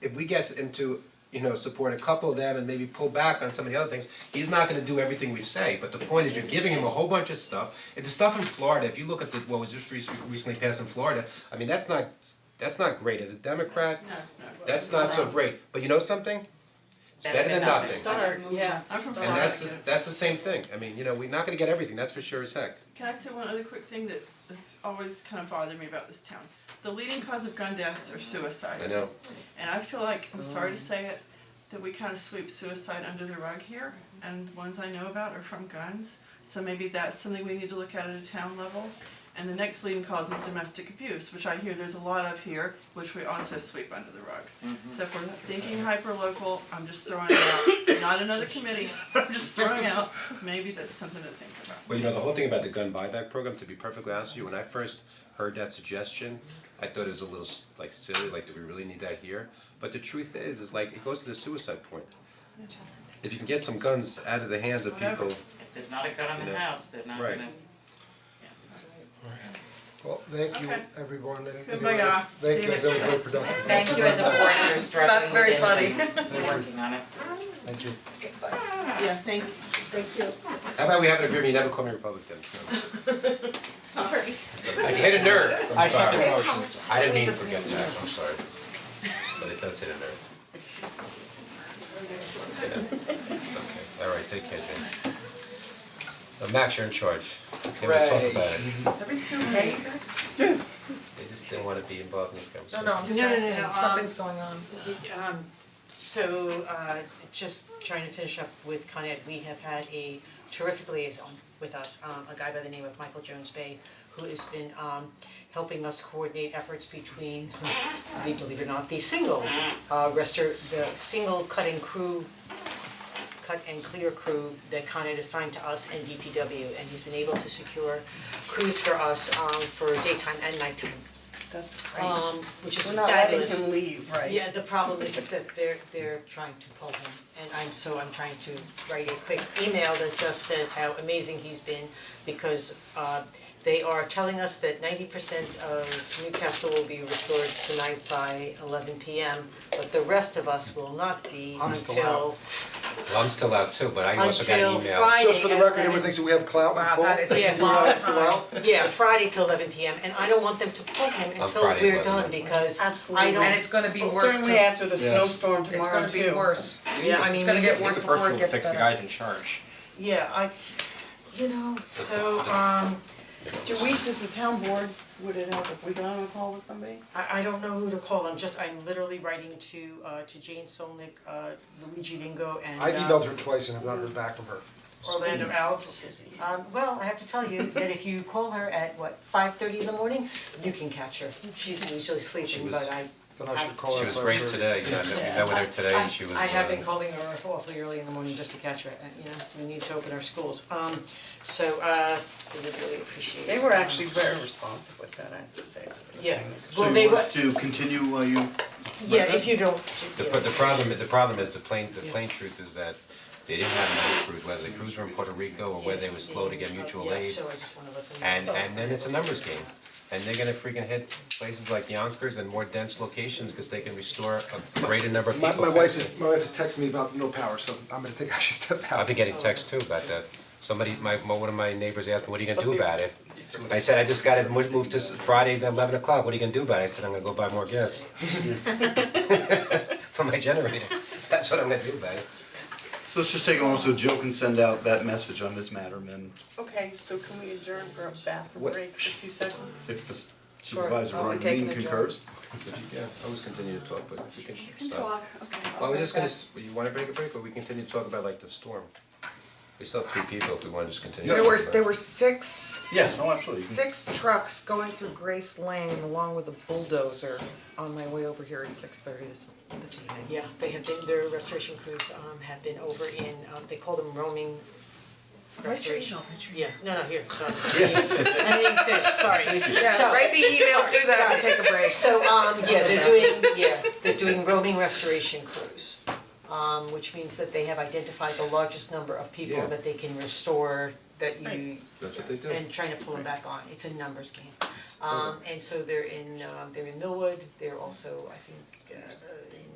if we get him to, you know, support a couple of them and maybe pull back on some of the other things, he's not gonna do everything we say, but the point is you're giving him a whole bunch of stuff. If the stuff in Florida, if you look at the, what was just rec- recently passed in Florida, I mean, that's not, that's not great as a Democrat. That's not so great, but you know something? It's better than nothing. Start, yeah. I'm from And that's Florida. the, that's the same thing, I mean, you know, we're not gonna get everything, that's for sure as heck. Can I say one other quick thing that that's always kind of bothered me about this town? The leading cause of gun deaths are suicides. I know, And I feel like, I'm sorry to say it, that we kind of sweep suicide under the rug here, and the ones I know about are from guns. So maybe that's something we need to look at at a town level. And the next leading cause is domestic abuse, which I hear there's a lot of here, which we also sweep under the rug. So if we're thinking hyper-local, I'm just throwing it out, not another committee, but I'm just throwing out, maybe that's something to think about. well, you know, the whole thing about the gun buyback program, to be perfectly honest with you, when I first heard that suggestion, I thought it was a little s- like silly, like, do we really need that here? But the truth is, is like, it goes to the suicide point. If you can get some guns out of the hands of people, If there's not a gun in You the know, house, they're not right. gonna, Well, thank you, Okay. everyone, and Goodbye, anyway, y'all. thank See you, you that was next very productive. Thank you as a board for struggling That's with very this funny. and they're working on it. Thank you. Yeah, thank you. how about we have an agreement, you never call me Republican, Sorry. I hit a nerve, I'm sorry, motion. I didn't mean to forget that, I'm sorry, but it does hit a nerve. Yeah, It's okay, alright, take care, Jane. Uh, Max, you're in charge, okay, we'll talk about it. Is everything okay, you guys? They just didn't wanna be involved in this No, conversation. no, I'm just No, no, no, asking, no, something's going on. Um, so, uh, just trying to finish up with Con Ed, we have had a terrific liaison with us, um, a guy by the name of Michael Jones Bay, who has been, um, helping us coordinate efforts between the, believe it or not, the single, uh, restor, the single cutting crew cut and clear crew that Con Ed assigned to us and DPW, and he's been able to secure crews for us, um, for daytime and nighttime, That's um, which is fabulous. We're not letting him leave, right? Yeah, the problem is is that they're they're trying to pull him and I'm so I'm trying to write a quick email that just says how amazing he's been because uh they are telling us that ninety percent of Newcastle will be restored tonight by eleven P M. But the rest of us will not be I'm still until Well, I'm still out too, but I also got an Until email. Friday. Just for the and record, then- everyone thinks that we have clout and Wow, pull. that is a You Yeah. are still out? Yeah, Friday till eleven P M and I don't want them to pull him until Friday, we're 11. done because I Absolutely. don't, And it's gonna be Well, worse certainly to- after the snowstorm It's gonna be worse. Yeah, I mean, It's gonna we- get He's worse the first before one it to gets better. fix the guys in charge. Yeah, I, you know, so, um, Do we, does the town board, would it help if we got on a call with somebody? I, I don't know who to call, I'm just, I'm literally writing to, uh, to Jane Solnick, uh, Luigi Vingo and, uh, I've emailed her twice and have not heard back from her. Orlando Alves. Um, well, I have to tell you that if you call her at, what, five thirty in the morning, you can catch her, she's usually sleeping, was- but I, Then I should call her. She was if I great heard. today, you know, I met, we Yeah. met with her today and she was. I I have uh, been calling her awfully early in the morning just to catch her, and, you know, we need to open our schools, um, so, uh, we would really appreciate it. They were Um, actually very responsive with that, I have to say. Yeah, So well, you they want were, us to continue while you, yeah, if you don't, The, yeah. pro- the problem, is- the problem is, the plain, the plain truth is that they didn't have enough crews, whether the crews were in Puerto Rico or whether they were slow to get mutual Yeah, aid. so I just wanna let them know. And, and then it's a numbers game, and they're gonna freaking hit places like Yonkers and more dense locations, cause they can restore a greater number of people My my faster. wife is, my wife is texting me about no power, so I'm gonna think I should step out. I've been getting texts too about that. Somebody, my, my- one of my neighbors asked me, what are you gonna do about it? I said, I just got it mo- moved to s- Friday at eleven o'clock, what are you gonna do about it? I said, I'm gonna go buy more gas. For my generator, that's what I'm gonna do about it. so let's just take a moment so Jill can send out that message on this matter, and then Okay, so can we adjourn for a bathroom What- break for two seconds? if the Sure. supervisor Are we Ron taking Lean a Jill? concurs. Always continue to talk, but you can okay. Well, I was just gonna, s- you wanna break a break, or we continue to talk about like the storm? We still have three people if we wanna just continue. There were, talking about there it. were six, Yes, no, absolutely. You can- six trucks going through Grace Lane along with a bulldozer on my way over here at six thirty this, this evening. Yeah, they have been, their restoration crews um have been over in, um they call them roaming restoration. Yeah, no, no, here, sorry. Yes. I mean, it's- sorry. Yeah, So- write the email, do that, and take a break. So um yeah, they're doing, yeah, they're doing roaming restoration crews. Um which means that they have identified the largest number of people Yeah. that they can restore that you Right. That's what they do. and trying to pull them back on, it's a numbers game. Um and so they're in um they're in Millwood, they're also, I think, uh,